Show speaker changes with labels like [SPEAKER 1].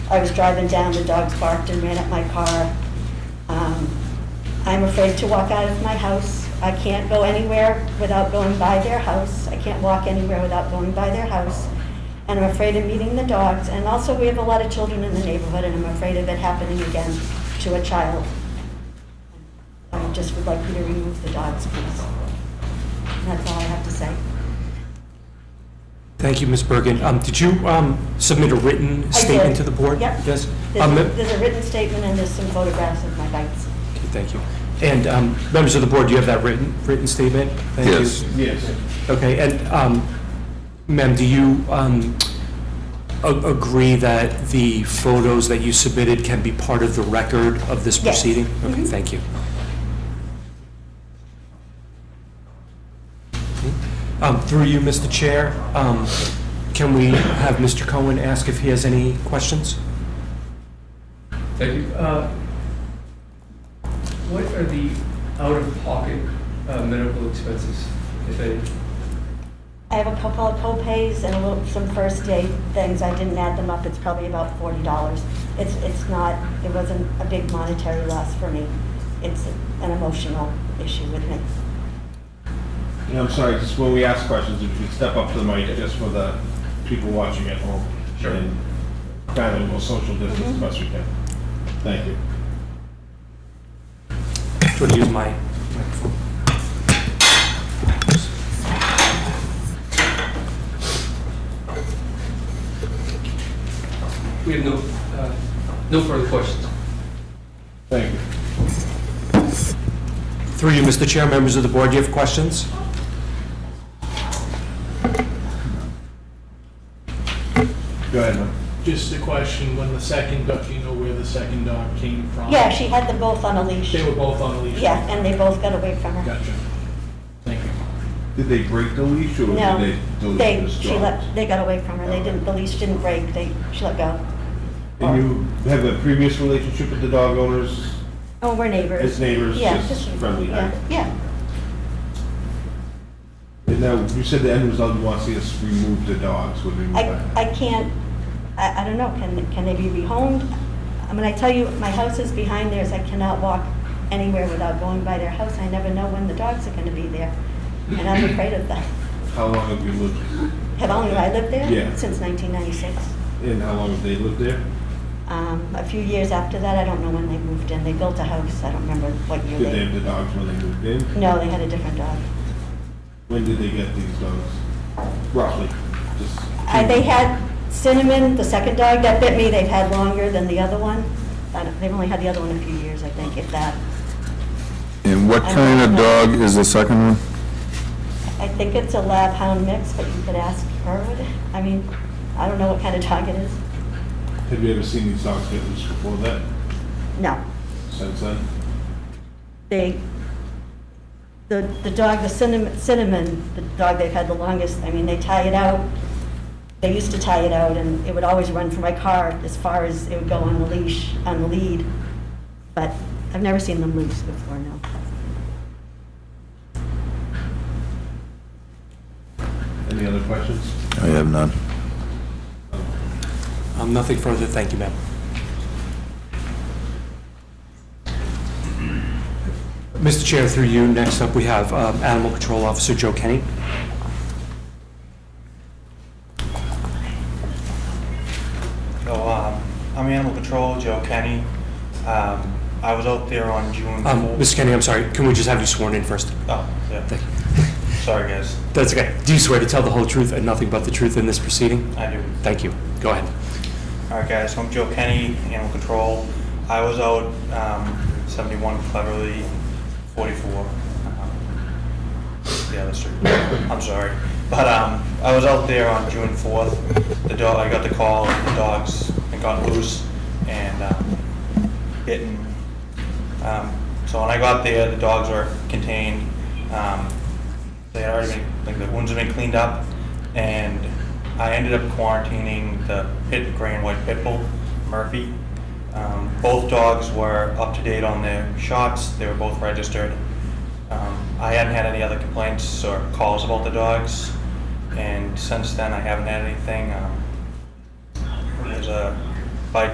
[SPEAKER 1] I was driving down, the dogs barked and ran at my car. Um, I'm afraid to walk out of my house. I can't go anywhere without going by their house. I can't walk anywhere without going by their house. And I'm afraid of meeting the dogs. And also, we have a lot of children in the neighborhood, and I'm afraid of it happening again to a child. I just would like you to remove the dogs, please. And That's all I have to say.
[SPEAKER 2] Thank you, Ms. Bergen. Um, Did you um, submit a written
[SPEAKER 1] I
[SPEAKER 2] statement
[SPEAKER 1] did.
[SPEAKER 2] to the board?
[SPEAKER 1] Yep.
[SPEAKER 2] Yes? Um,
[SPEAKER 1] There's there's a written statement and there's some photographs of my bites.
[SPEAKER 2] okay, Thank you. And um, members of the board, do you have that written, written statement? Thank you.
[SPEAKER 3] Yes.
[SPEAKER 4] Yes.
[SPEAKER 2] Okay, and um, ma'am, do you um, a- agree that the photos that you submitted can be part of the record of this
[SPEAKER 1] Yes.
[SPEAKER 2] proceeding? Okay,
[SPEAKER 1] Mhm.
[SPEAKER 2] thank you. Um, Through you, Mr. Chair, um, can we have Mr. Cohen ask if he has any questions?
[SPEAKER 4] Thank you. Uh, What are the out-of-pocket uh, medical expenses, if any?
[SPEAKER 1] I have a couple of co-pays and a little, some first aid things. I didn't add them up. It's probably about forty dollars. It's, it's not, it wasn't a big monetary loss for me. It's an emotional issue with me.
[SPEAKER 5] And I'm sorry, just when we ask questions, if you step up to the mic, just for the people watching at home.
[SPEAKER 4] Sure.
[SPEAKER 5] And Kindly, we'll social
[SPEAKER 1] Mm-hmm.
[SPEAKER 5] distance as best we can. Thank you.
[SPEAKER 2] Should I use my microphone?
[SPEAKER 4] We have no, uh, no further questions.
[SPEAKER 5] Thank you.
[SPEAKER 2] Through you, Mr. Chair, members of the board, do you have questions?
[SPEAKER 5] Go ahead, ma'am.
[SPEAKER 6] Just a question, when the second dog, do you know where the second dog came from?
[SPEAKER 1] Yeah, she had them both on a leash.
[SPEAKER 6] They were both on a leash?
[SPEAKER 1] Yeah, and they both got away from her.
[SPEAKER 6] Gotcha. Thank you.
[SPEAKER 5] Did they break the leash or
[SPEAKER 1] No,
[SPEAKER 5] did they do
[SPEAKER 1] they,
[SPEAKER 5] this
[SPEAKER 1] she let, they got away from her. They didn't, the leash didn't break. They, she let go.
[SPEAKER 5] And you have a previous relationship with the dog owners
[SPEAKER 1] Oh, we're neighbors.
[SPEAKER 5] as neighbors,
[SPEAKER 1] Yeah,
[SPEAKER 5] just friendly?
[SPEAKER 1] Yeah, yeah.
[SPEAKER 5] And now, you said the end result, you want to see us remove the dogs, would we move
[SPEAKER 1] I,
[SPEAKER 5] that?
[SPEAKER 1] I can't, I, I don't know, can, can they be rehomed? I mean, I tell you, my house is behind theirs, I cannot walk anywhere without going by their house, I never know when the dogs are gonna be there, and I'm afraid of them.
[SPEAKER 5] How long have you lived,
[SPEAKER 1] Have only I lived there?
[SPEAKER 5] Yeah.
[SPEAKER 1] Since nineteen ninety-six.
[SPEAKER 5] and how long have they lived there?
[SPEAKER 1] Um, a few years after that, I don't know when they moved in, they built a house, I don't remember what year
[SPEAKER 5] Did they have
[SPEAKER 1] they.
[SPEAKER 5] the dogs when they moved in?
[SPEAKER 1] No, they had a different dog.
[SPEAKER 5] When did they get these dogs? Roughly, just.
[SPEAKER 1] I, Uh, they had Cinnamon, the second dog that bit me, they've had longer than the other one. I don't, they've only had the other one a few years, I think, if that.
[SPEAKER 3] And what
[SPEAKER 1] I
[SPEAKER 3] kind
[SPEAKER 1] don't
[SPEAKER 3] of
[SPEAKER 1] know.
[SPEAKER 3] dog is the second one?
[SPEAKER 1] I think it's a lab hound mix, but you could ask her. what- I mean, I don't know what kind of dog it is.
[SPEAKER 5] Have you ever seen these dogs get loose before that,
[SPEAKER 1] No.
[SPEAKER 5] since then?
[SPEAKER 1] They, the, the dog, the cinnamon, cinnamon, the dog they've had the longest, I mean, they tie it out. They used to tie it out and it would always run for my car as far as it would go on the leash, on the lead. But I've never seen them loose before, no.
[SPEAKER 5] Any other questions?
[SPEAKER 3] I have none.
[SPEAKER 2] Um, Nothing further, thank you, ma'am. Mr. Chair, through you, next up, we have um, Animal Control Officer Joe Kenny.
[SPEAKER 7] So, um, I'm Animal Control, Joe Kenny. Um, I was out there on June.
[SPEAKER 2] Um,
[SPEAKER 7] fourth-
[SPEAKER 2] Mr. Kenny, I'm sorry, can we just have you sworn in first?
[SPEAKER 7] Oh, yeah,
[SPEAKER 2] Thank you.
[SPEAKER 7] sorry, guys.
[SPEAKER 2] That's okay. Do you swear to tell the whole truth and nothing but the truth in this proceeding?
[SPEAKER 7] I do.
[SPEAKER 2] Thank you. Go ahead.
[SPEAKER 7] All right, guys, so I'm Joe Kenny, Animal Control. I was out um, 71 Cleverly, Uh-huh. and 44. um, The other street. I'm sorry. But um, I was out there on June 4th. The dog, I got the call, the dogs had gotten loose and um, bitten. Um, So when I got there, the dogs were contained. Um, they had already been, like, the wounds had been cleaned up, and I ended up quarantining the pit, gray and white pit bull, Murphy. Um, both dogs were up to date on their shots, they were both registered. Um, I hadn't had any other complaints or calls about the dogs, and since then, I haven't had anything. Um, There's a